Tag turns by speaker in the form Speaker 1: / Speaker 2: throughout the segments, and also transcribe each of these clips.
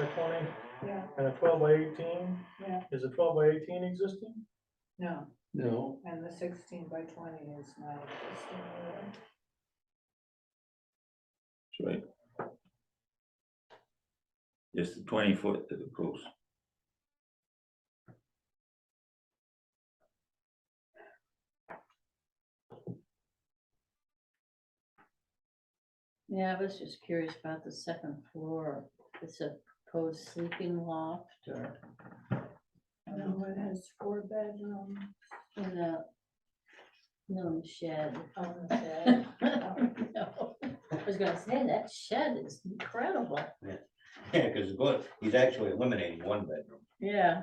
Speaker 1: twenty
Speaker 2: yeah,
Speaker 1: and a twelve by eighteen?
Speaker 2: Yeah.
Speaker 1: Is a twelve by eighteen existing?
Speaker 2: no,
Speaker 3: No,
Speaker 2: and the sixteen by twenty is not existing. either.
Speaker 3: that's right.
Speaker 4: Just the twenty foot to the post.
Speaker 5: Yeah, I was just curious about the second floor. It's a proposed sleeping loft or
Speaker 2: No, it has four bedrooms
Speaker 5: in a, no shed.
Speaker 2: on the shed.
Speaker 5: No, I was gonna say, that shed is incredible.
Speaker 6: Yeah, because good, he's actually eliminating one bedroom.
Speaker 5: Yeah,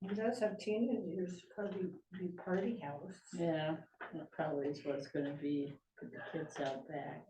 Speaker 2: He does have teenagers, probably be party house.
Speaker 5: yeah, that probably is what it's gonna be for the kids out back.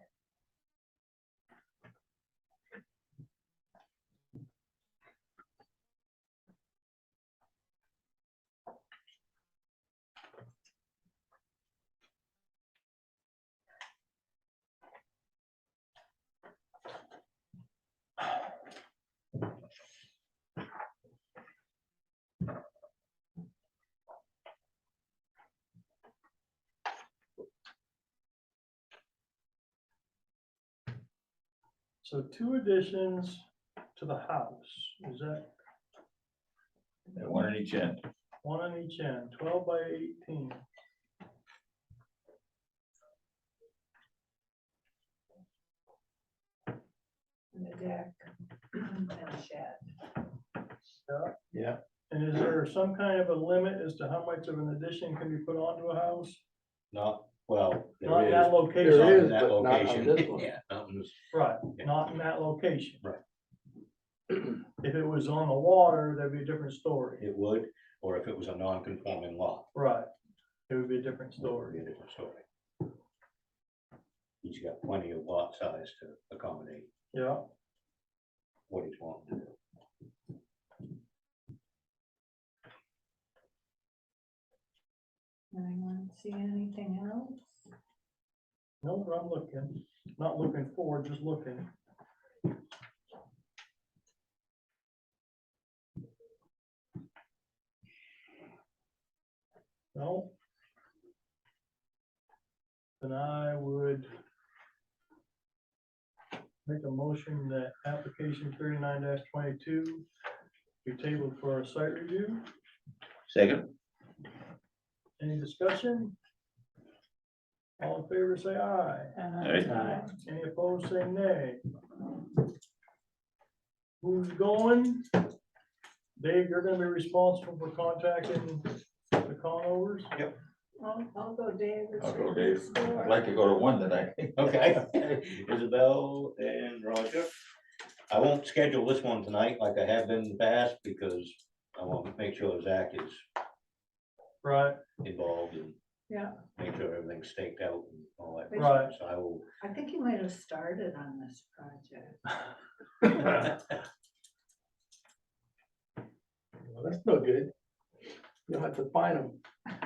Speaker 1: So two additions to the house, is that
Speaker 4: That One on each end.
Speaker 1: one on each end, twelve by eighteen?
Speaker 2: And the deck and the shed.
Speaker 1: Yeah.
Speaker 3: Yeah.
Speaker 1: And is there some kind of a limit as to how much of an addition can be put onto a house?
Speaker 6: Not, well,
Speaker 1: Not in
Speaker 6: there is.
Speaker 1: that location.
Speaker 6: not
Speaker 3: There
Speaker 6: in
Speaker 3: is,
Speaker 6: that
Speaker 3: but not on
Speaker 6: location.
Speaker 3: this one.
Speaker 6: Yeah, not in this-
Speaker 1: Right, not in that location.
Speaker 6: Right.
Speaker 1: If it was on the water, that'd be a different story.
Speaker 6: it would, or if it was a non-conforming lot.
Speaker 1: Right. It would be a different
Speaker 6: it'd
Speaker 1: story.
Speaker 6: be a different story. He's got plenty of lot size to accommodate
Speaker 1: Yeah,
Speaker 6: what he's wanting to do.
Speaker 2: Anyone see anything else?
Speaker 1: no, but I'm looking, not looking forward, just looking. No. Then I would make a motion that application thirty-nine twenty-two be tabled for a site review.
Speaker 4: Second,
Speaker 1: Any discussion? All in favor, say aye.
Speaker 4: Aye.
Speaker 2: Uh,
Speaker 1: Any opposed, say nay. Who's going? Dave, you're gonna be responsible for contacting the conovers?
Speaker 2: I'll, I'll go Dave. it's
Speaker 4: I'll go
Speaker 2: right
Speaker 4: Dave.
Speaker 2: next door.
Speaker 4: I'd like to go to one tonight.
Speaker 6: Okay, Isabel and Roger. I won't schedule this one tonight like I have been in the past because I want to make sure Zach is
Speaker 1: Right,
Speaker 6: involved and
Speaker 2: Yeah,
Speaker 6: make sure everything's staked out and all that.
Speaker 1: Right.
Speaker 6: So I will,
Speaker 2: I think he might have started on this project.
Speaker 3: Well, That's no good. You'll have to find them.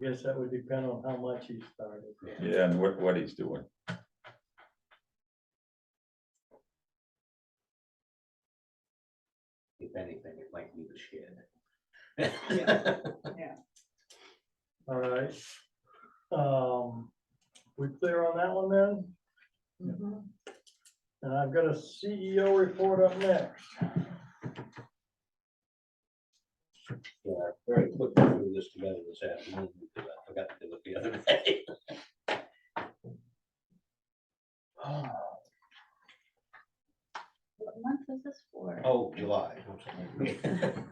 Speaker 1: guess that would depend on how much he started.
Speaker 4: Yeah, and what, what he's doing.
Speaker 6: if anything, it might be the shed.
Speaker 1: All right. Um, we clear on that one then?
Speaker 2: Mhm.
Speaker 1: And I've got a CEO report up next.
Speaker 6: Yeah, very quickly threw this together this afternoon because I forgot to do it the other day.
Speaker 5: What month is this for?
Speaker 6: Oh, July. I'm sorry.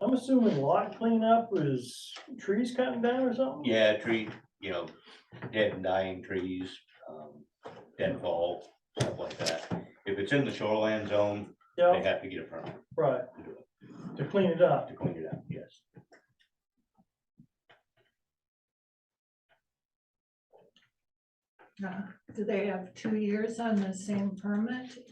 Speaker 1: I'm assuming lot cleanup is trees cutting down or something?
Speaker 6: Yeah, tree, you know, dead and dying trees, um, deadfall, stuff like that. If it's in the shoreline zone, they
Speaker 1: Yeah,
Speaker 6: have to get a permit
Speaker 1: right,
Speaker 6: to do it,
Speaker 1: to clean it up.
Speaker 6: to clean it up, yes.
Speaker 2: Uh, Do they have two years on the same permit